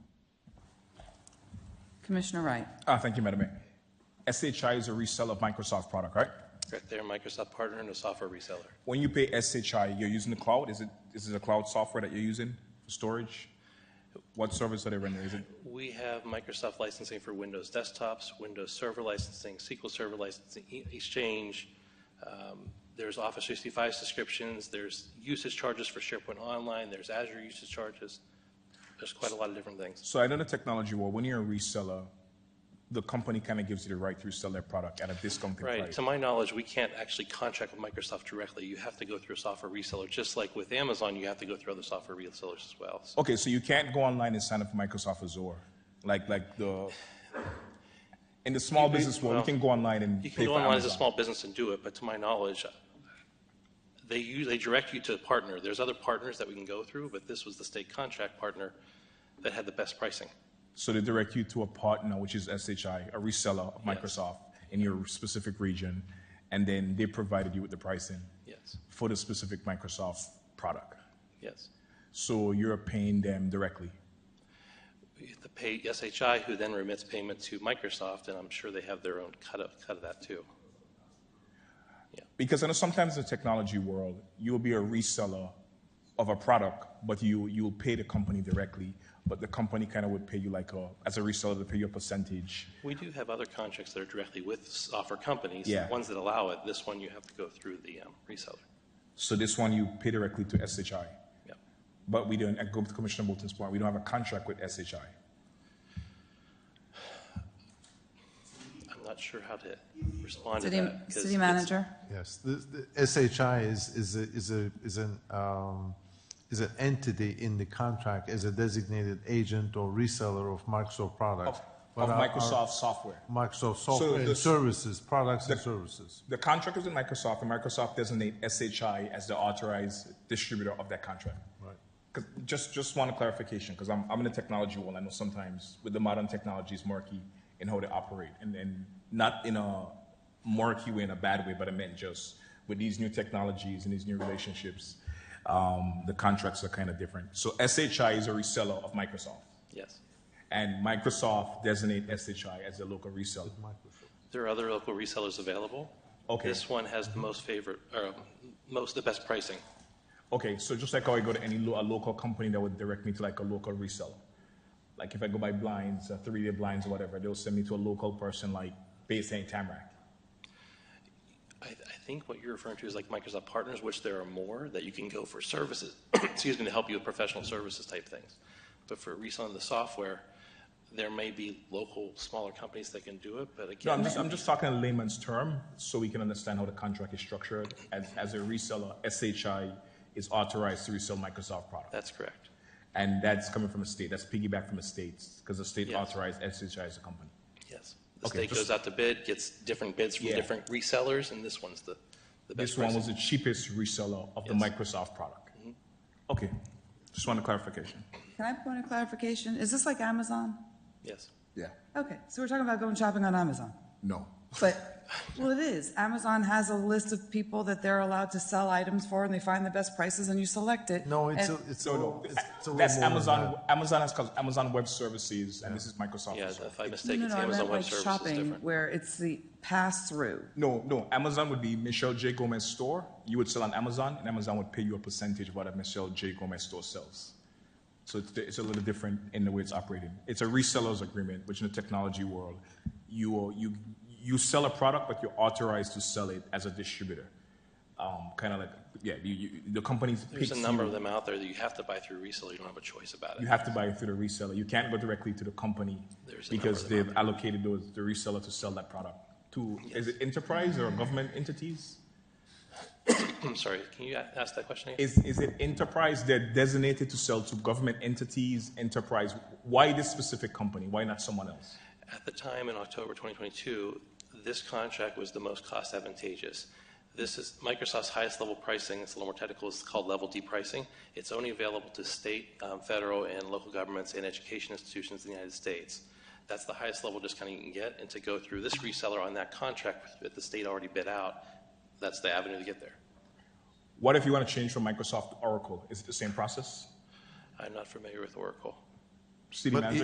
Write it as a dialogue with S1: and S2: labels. S1: Commissioner Wright.
S2: Ah, thank you, Madam Mayor. SHI is a reseller of Microsoft product, right?
S3: Correct, they're a Microsoft partner and a software reseller.
S2: When you pay SHI, you're using the cloud? Is it, is it a cloud software that you're using for storage? What service are they rendering? Is it,
S3: We have Microsoft licensing for Windows desktops, Windows Server licensing, SQL Server licensing, E- Exchange. Um, There's Office 365 subscriptions, there's usage charges for SharePoint Online, there's Azure usage charges. There's quite a lot of different things.
S2: so I know the technology Well, when you're a reseller, the company kind of gives you the right to resell their product at a discounted
S3: Right,
S2: price.
S3: to my knowledge, we can't actually contract with Microsoft directly. You have to go through a software reseller, just like with Amazon, you have to go through other software resellers as well. So
S2: Okay, so you can't go online and sign up for Microsoft Azure, like, like the, in the small
S3: You-
S2: business world,
S3: well,
S2: you can go online and
S3: You
S2: pay
S3: can go
S2: for
S3: online as a
S2: Amazon.
S3: small business and do it, but to my knowledge, they, u- they direct you to a partner. There's other partners that we can go through, but this was the state contract partner that had the best pricing.
S2: So they direct you to a partner, which is SHI, a reseller of Microsoft in your specific region, and then they provided you with the pricing
S3: Yes,
S2: for the specific Microsoft product.
S3: yes.
S2: So you're paying them directly.
S3: We have to pay SHI, who then remits payment to Microsoft, and I'm sure they have their own cut of, cut of that too.
S2: Because I know sometimes in the technology world, you'll be a reseller of a product, but you you'll pay the company directly, but the company kind of would pay you like a as a reseller, they pay you a percentage.
S3: We do have other contracts that are directly with software companies.
S2: Yeah.
S3: Ones that allow it, this one you have to go through the um, reseller.
S2: So this one you pay directly to SHI.
S3: Yep.
S2: But we don't, I go to Commissioner Bolton's point, we don't have a contract with SHI.
S3: I'm not sure how to respond to
S1: City,
S3: that. 'cause
S1: city
S3: it's-
S1: manager.
S4: Yes, the, the SHI is, is a, is a, is an, um, is an entity in the contract as a designated agent or reseller of Microsoft products.
S2: Of,
S4: But
S2: of
S4: our- our
S2: Microsoft software.
S4: Microsoft software and
S2: this-
S4: services, products and
S2: the-
S4: services.
S2: The contract is with Microsoft, and Microsoft designate SHI as the authorized distributor of that contract.
S4: Right.
S2: 'Cause- Just, just want a clarification, because I'm, I'm in the technology world, I know sometimes with the modern technology it's murky in how they operate, and, and not in a murky way, in a bad way, but I meant just with these new technologies and these new relationships, um, the contracts are kind of different. So SHI is a reseller of Microsoft,
S3: Yes.
S2: and Microsoft designate SHI as a local reseller.
S3: There are other local resellers available.
S2: Okay.
S3: This one has the most favorite, or um, most, the best pricing.
S2: Okay, so just like how I go to any lo- a local company that would direct me to like a local reseller. Like if I go buy blinds, uh, 3D blinds or whatever, they'll send me to a local person like based in Tamarack.
S3: I, I think what you're referring to is like Microsoft Partners, which there are more that you can go for services, excuse me, to help you with professional services type things. But for reselling the software, there may be local smaller companies that can do it, but
S2: No, I'm
S3: again,
S2: just, I'm just talking in layman's term so we can understand how the contract is structured. As, as a reseller, SHI is authorized to resell Microsoft products.
S3: that's correct.
S2: And that's coming from a state, that's piggyback from the states because the state
S3: Yes.
S2: authorized SHI as a company.
S3: Yes. The
S2: Okay,
S3: state
S2: just-
S3: goes out to bid, gets different bids from
S2: Yeah.
S3: different resellers, and this one's the, the best
S2: This one was
S3: pricing.
S2: the cheapest reseller of the
S3: Yes. Mm-hmm.
S2: Microsoft product. Okay, just want a clarification.
S1: Can I point a clarification? Is this like Amazon?
S3: Yes.
S2: Yeah.
S1: Okay, so we're talking about going shopping on Amazon.
S2: No.
S1: But, well, it is. Amazon has a list of people that they're allowed to sell items for, and they find the best prices, and you select it.
S4: No, it's,
S1: And-
S4: a- it's, a
S2: No,
S4: little-
S2: no,
S4: it's Oh, it's a little more
S2: that's
S4: than
S2: Amazon.
S4: that.
S2: Amazon has called Amazon Web Services, and this is Microsoft.
S3: Yeah,
S2: as well.
S3: if I
S1: No,
S3: mistake,
S1: no,
S3: it's
S1: no, I
S3: Amazon
S1: meant
S3: Web
S1: like
S3: Services is
S1: shopping,
S3: different.
S1: where it's the pass-through.
S2: No, no. Amazon would be Michelle J. Gomez store. You would sell on Amazon, and Amazon would pay you a percentage of what a Michelle J. Gomez store sells. So it's, it's a little different in the way it's operated. It's a reseller's agreement, which in the technology world, you are- you you sell a product, but you're authorized to sell it as a distributor. Um, kind of like yeah, you, you, the companies.
S3: There's a
S2: picks
S3: number
S2: you.
S3: of them out there that you have to buy through reseller. You don't have a choice about
S2: You
S3: it.
S2: have to buy it through the reseller. You can't go directly to the company
S3: There's a number
S2: because
S3: of them out
S2: they've allocated those, the reseller to sell that product to, is it enterprise or government entities?
S3: I'm sorry, can you a- ask that question again?
S2: Is, is it enterprise they're designated to sell to government entities, enterprise? Why this specific company? Why not someone else?
S3: At the time in October 2022, this contract was the most cost advantageous. This is Microsoft's highest level pricing. It's a little more technical. It's called level D pricing. It's only available to state, um, federal, and local governments and education institutions in the United States. That's the highest level discount you can get. And to go through this reseller on that contract that the state already bid out, that's the avenue to get there.
S2: What if you want to change from Microsoft to Oracle? Is it the same process?
S3: I'm not familiar with Oracle.
S2: City
S4: But
S2: manager,